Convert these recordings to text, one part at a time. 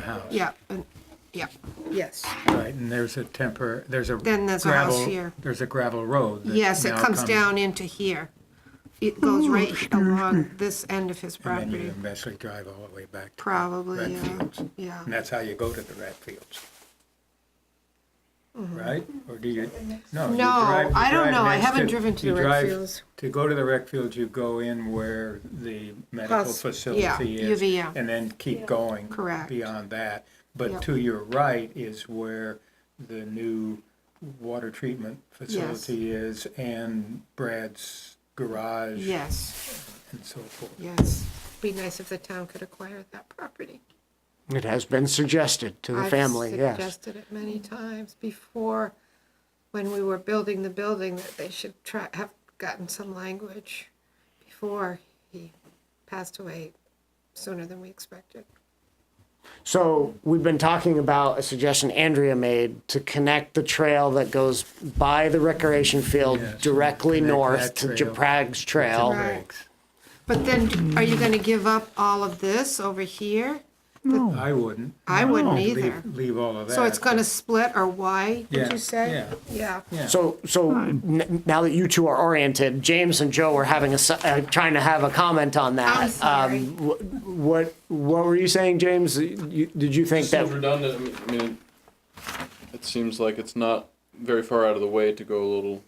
house. yeah, and, yeah, yes. Right, and there's a temper, there's a Then there's a house gravel- here. There's a gravel road. that Yes, it now comes down into here. It goes right along this end of his And then you property, eventually drive all the way back to probably, yeah, Redfields. yeah. And that's how you go to the rat fields. Right? Or do you, no. you Mm-hmm. No, drive- you I don't drive know. I next haven't driven to you the rec drive- fields. To go to the rec fields, you go in where the medical Hos- facility yeah, is. UVM. And then keep going. Correct. Beyond that. But Yep. to your right is where the new water treatment facility is and Brad's garage Yes, and so forth. yes. Be nice if the town could acquire that property. It has been suggested to the family, I've yes. suggested it many times before, when we were building the building, that they should try, have gotten some language before he passed away sooner than we expected. So we've been talking about a suggestion Andrea made to connect the trail that goes by the recreation field Yes, directly connect north that to trail. Japrag's Trail. Thanks. But then, are you gonna give up all of this over here? Oh. I wouldn't. I wouldn't Leave- either. Leave all of that. So it's gonna split or why, did Yeah, you say? yeah. Yeah. Yeah. So, so n- now that you two are oriented, James and Joe were having a, s- uh, trying to have a comment on that. I'm sorry. Um, wh- What, what were you saying, James? You- Did you think It that? seems redundant. I mean, I mean, it seems like it's not very far out of the way to go a little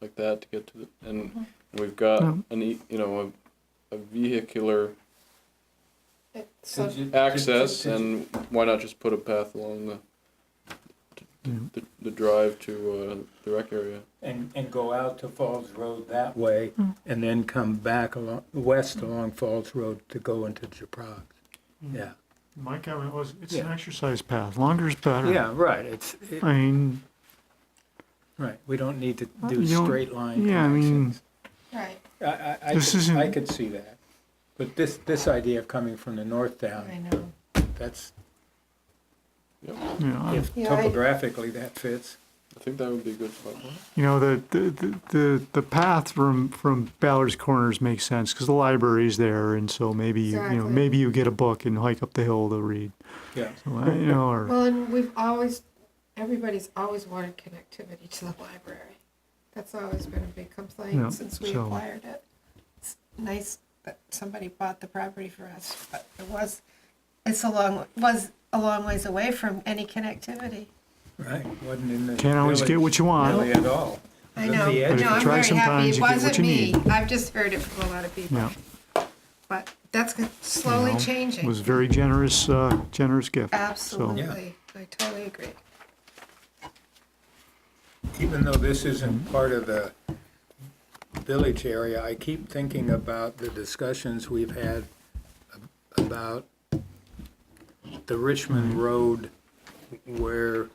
like that to get to the and we've got an e you know a, a vehicular So access and why not just put a path along the the, the drive to uh, the rec area. And, and go out to Falls Road that way, Mm. and then come back along, west along Falls Road to go into Japrag. Mm. Yeah. My comment was, it's an Yeah. exercise path. Longer is better. Yeah, right, it's, it- I mean, right, we don't need to You do don't- straight line yeah, I mean- connections. Right, I, I, I This could, isn't- I could see that. But this, this idea of coming from the north down, know. that's, you know, I- if Yeah, I- topographically that fits. I think that would be a good spot. you know, the, the- the, the, the path from, from Ballard's Corners makes sense because the library's there. And so maybe, you you know, Exactly. maybe you get a book and hike up the hill to read, Yeah, Well, you know, or, Well, and we've always, everybody's always wanted connectivity to the library. That's always been a big Yeah, complaint since we so- acquired it. It's nice that somebody bought the property for us, but it was, it's a long, was a long ways away from any connectivity. right, wasn't in the. Can't always get what you want. village Really at all. I It was know, at the edge But if no, you I'm try very happy, sometimes, it you get what wasn't you me, need. I've just heard it from a lot of people, yeah. but that's you slowly know, changing. Was very generous, uh, generous gift. So, Absolutely, I totally agree. even though this isn't part of the village area, I keep thinking about the discussions we've had ab- about the Richmond Road where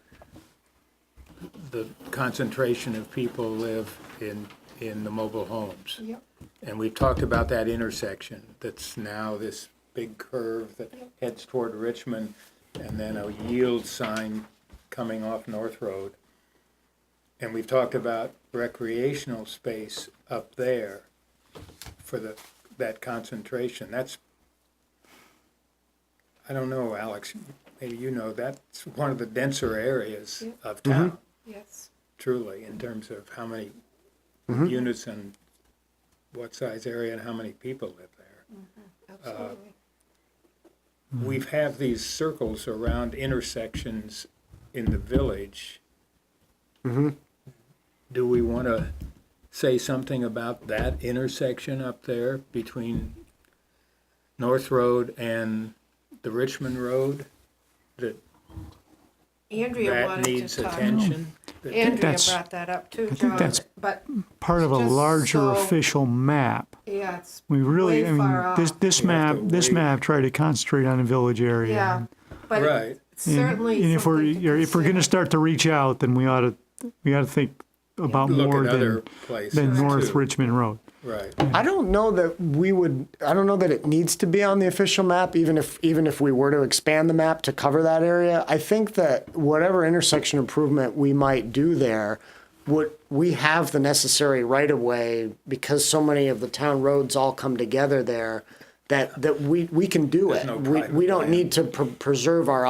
the concentration of people live in, in the mobile homes. Yep. And we've talked about that intersection that's now this big curve that heads toward Richmond and then a yield sign coming off North Road. And we've talked about recreational space up there for the, that concentration. That's, I don't know, Alex, maybe you know, that's one of the denser areas of town, Yes, truly, in terms of how many Mm-hmm. units and what size area and how many people live there. absolutely. Mm-hmm. We've have these circles around intersections in the village. Mm-hmm. Do we want to say something about that intersection up there between North Road and the Richmond Road? That Uh, Andrea that wanted needs to talk. attention? That- Andrea that's- brought that up too, think John, that's- but, Part of a It's just larger so- official map. yeah, it's, We really, Way I mean, far this, off. this You have map, to this wait. map tried to concentrate on a village area. yeah, and- but Right. it- it's certainly. Mm-hmm. And if we're, something to if we're gonna consider. start to reach out, then we ought to, we ought to think about Look more at other than, places than North too. Richmond Road. Right. I don't know that we would, I don't know that it needs to be on the official map, even if, even if we were to expand the map to cover that area. I think that whatever intersection improvement we might do there, would, we have the necessary right of way because so many of the town roads all come together there that, that we, we can do There's it. no We, private we don't land. need to pre- preserve our